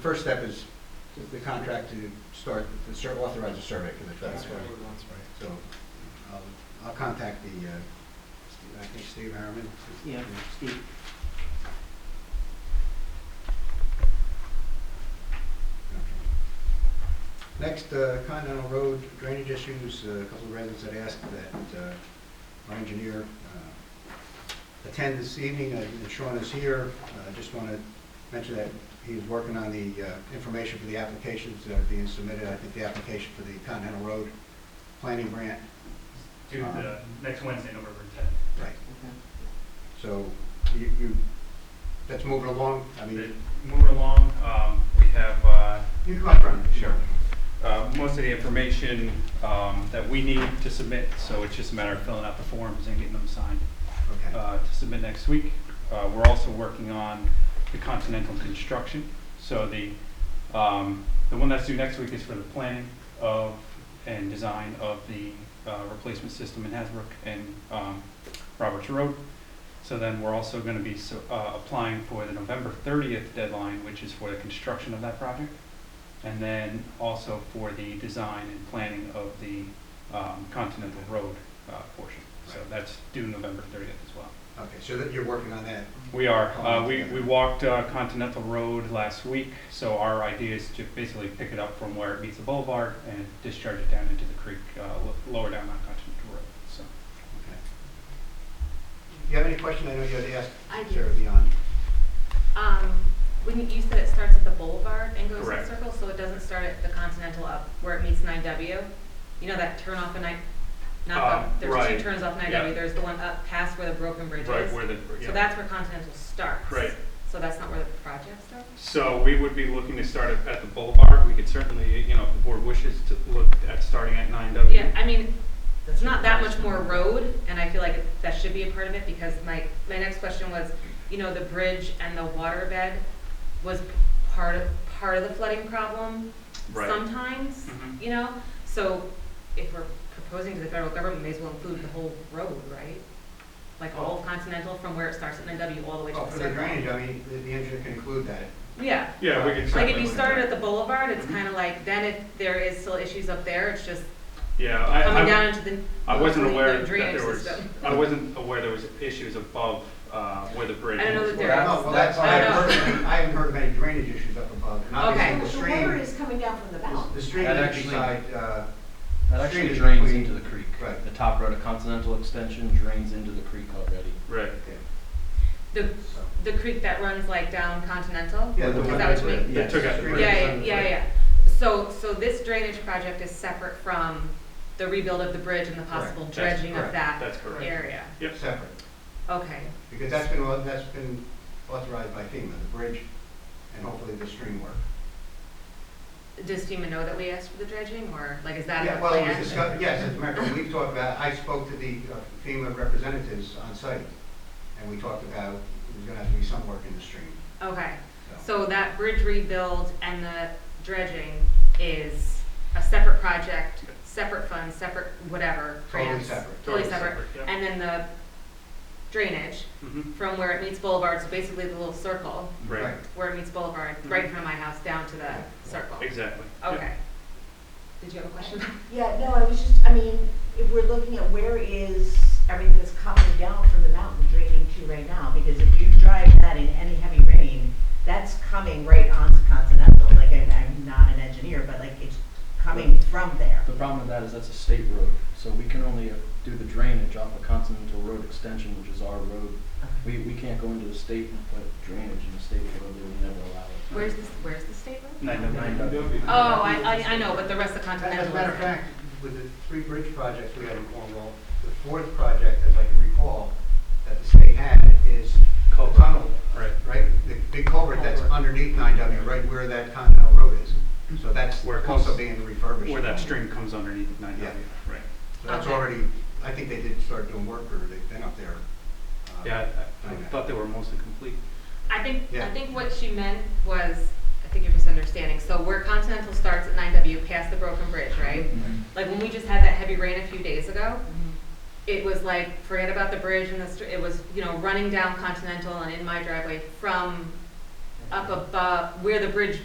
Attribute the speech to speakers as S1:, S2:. S1: first step is the contract to start, to start authorize a survey for the track.
S2: That's what I would want.
S1: So I'll, I'll contact the, uh, Steve- I think Steve Harriman.
S3: Yeah, Steve.
S1: Okay. Next, uh, Continental Road drainage issues, Uh, a couple of residents had asked that uh, our engineer uh, attend this evening, Uh, and Sean is here, Uh, I just want to mention that he's working on the uh, information for the applications that are being submitted, I think the application for the Continental Road planning grant.
S4: Due
S1: Uh-huh.
S4: to the next Wednesday, November tenth.
S1: Right.
S3: Okay.
S1: So you, you, that's moving along, I mean,
S4: Moving along, um, we have, uh,
S1: you can run.
S4: Sure. uh, most of the information, um, that we need to submit, so it's just a matter of filling out the forms and getting them signed,
S1: Okay,
S4: uh, to submit next week. Uh, we're also working on the Continental Construction, so the, um, the one that's due next week is for the planning of and design of the, uh, replacement system in Hasbrook and, um, Roberts Road. So then we're also gonna be, so, uh, applying for the November thirtieth deadline, which is for the construction of that project. And then also for the design and planning of the, um, Continental Road, uh, portion. So
S1: Right.
S4: that's due November thirtieth as well.
S1: okay, so that you're working on that,
S4: We are.
S1: Oh,
S4: Uh, we,
S1: okay.
S4: we walked uh, Continental Road last week, so our idea is to basically pick it up from where it meets the boulevard and discharge it down into the creek, uh, lo- lower down on Continental Road, so.
S1: okay. You have any question, I know you had asked
S5: I do.
S1: Sarah beyond.
S5: Um, wouldn't you said it starts at the boulevard and goes in
S4: Correct.
S5: a circle, so it doesn't start at the Continental up where it meets nine W? You know that turn off and I, not
S4: Uh,
S5: up, there's
S4: right.
S5: two turns off nine
S4: Yeah.
S5: W, there's the one up past where the broken bridge is.
S4: the,
S5: So that's where Continental starts.
S4: Right.
S5: So that's not where the project starts?
S4: So we would be looking to start at, at the boulevard. We could certainly, you know, if the board wishes to look at starting at nine W.
S5: Yeah, I mean,
S3: That's
S5: it's not
S3: your
S5: that much
S3: question.
S5: more road, and I feel like it- that should be a part of it, because my, my next question was, you know, the bridge and the waterbed was part of, part of the flooding problem
S4: Right.
S5: sometimes,
S4: Mhm.
S5: you know? So if we're proposing to the federal government, may as well include the whole road, right? Like all
S4: Oh.
S5: of Continental, from where it starts at NW all the way to
S1: Oh,
S5: the
S1: for the drainage,
S5: circle.
S1: I mean, the, the engineer can include that.
S5: Yeah,
S4: Yeah, we could
S5: like if
S4: certainly
S5: you
S4: look at
S5: started
S4: that.
S5: at the boulevard, it's
S4: Mm-hmm.
S5: kind of like, then if there is still issues up there, it's just
S4: Yeah, I,
S5: coming
S4: I,
S5: down into the.
S4: I wasn't
S5: the
S4: aware that
S5: drainage
S4: there was,
S5: system.
S4: I wasn't aware there was issues above, uh, where the bridge.
S5: I don't know
S4: is.
S5: that there
S1: Well,
S5: is.
S1: no, Well, that's,
S5: I
S1: I haven't
S5: don't
S1: heard, of any- I haven't heard of any drainage issues up above. And
S5: Okay.
S1: obviously, the
S6: So the water
S1: stream,
S6: is coming down from the mountain.
S1: the stream
S7: That
S1: is
S7: actually-
S1: beside, uh,
S7: That actually
S1: Street is
S7: drains
S1: between-
S7: into the creek.
S1: Right.
S7: The top road of Continental Extension drains into the creek already.
S4: Right.
S1: okay,
S5: The,
S1: so.
S5: the creek that runs like down Continental?
S1: Yeah, the one
S5: Is that what
S1: that's
S5: you mean?
S1: right, yeah,
S4: They took out the
S1: stream
S5: Yeah,
S4: bridge.
S1: is
S5: yeah,
S1: on the
S5: yeah,
S1: right.
S5: yeah. So, so this drainage project is separate from the rebuild of the bridge and the possible
S4: Correct. That's
S5: dredging of
S1: correct.
S5: that
S4: That's correct.
S5: area?
S4: Yep.
S1: Separate,
S5: Okay,
S1: because that's been, au- that's been authorized by FEMA, the bridge and hopefully the stream work.
S5: does FEMA know that we asked for the dredging, or like, is that in the
S1: Yeah, well, it was
S5: plan?
S1: discussed, yes, as a matter of fact, we've talked about, I spoke to the uh, FEMA representatives on site, and we talked about, there's gonna have to be some work in the stream,
S5: Okay,
S1: so.
S5: so that bridge rebuild and the dredging is a separate project, separate funds, separate whatever,
S1: Totally
S5: grants?
S1: separate.
S5: Totally
S4: Totally
S5: separate,
S4: separate, yeah.
S5: and then the drainage,
S4: Mhm.
S5: from where it meets Boulevard, so basically the little circle
S4: Right,
S5: where it meets Boulevard, right in front of my house, down to the circle.
S4: exactly. Yep.
S5: Okay. Did you have a question?
S6: Yeah, no, I was just, I mean, if we're looking at where is everything that's coming down from the mountain draining to right now, because if you drive that in any heavy rain, that's coming right onto Continental, like, I'm, I'm not an engineer, but like, it's coming from there.
S7: The problem with that is that's a state road, so we can only uh, do the drainage off of Continental Road Extension, which is our road. We, we can't go into the state and put drainage in the state road, they would never allow it.
S5: Where's this, where's the state road?
S4: Nine to nine.
S5: Oh, I, I, I know, but the rest of Continental.
S1: As a matter of
S5: isn't.
S1: fact, with the three bridge projects we had in Cornwall, the fourth project, as I can recall, that the state had is the
S4: Culvert.
S1: tunnel,
S4: Right.
S1: right? The big culvert that's
S4: Culvert.
S1: underneath 9W, right where that Continental Road is. So that's
S4: Where it comes-
S1: also being refurbished.
S4: Where that stream comes underneath nine
S1: Yeah.
S4: W, right.
S1: So that's
S5: Okay.
S1: already, I think they did start doing work, or they've been up there. uh,
S4: Yeah, I- I
S1: Okay.
S4: thought they were mostly complete.
S5: I think, I
S1: Yeah.
S5: think what she meant was, I think you're misunderstanding, so where Continental starts at nine W, past the broken bridge, right?
S7: Mm-hmm.
S5: Like when we just had that heavy rain a few days ago, it was like, forget about the bridge and the, str- it was, you know, running down Continental and in my driveway from up above, where the bridge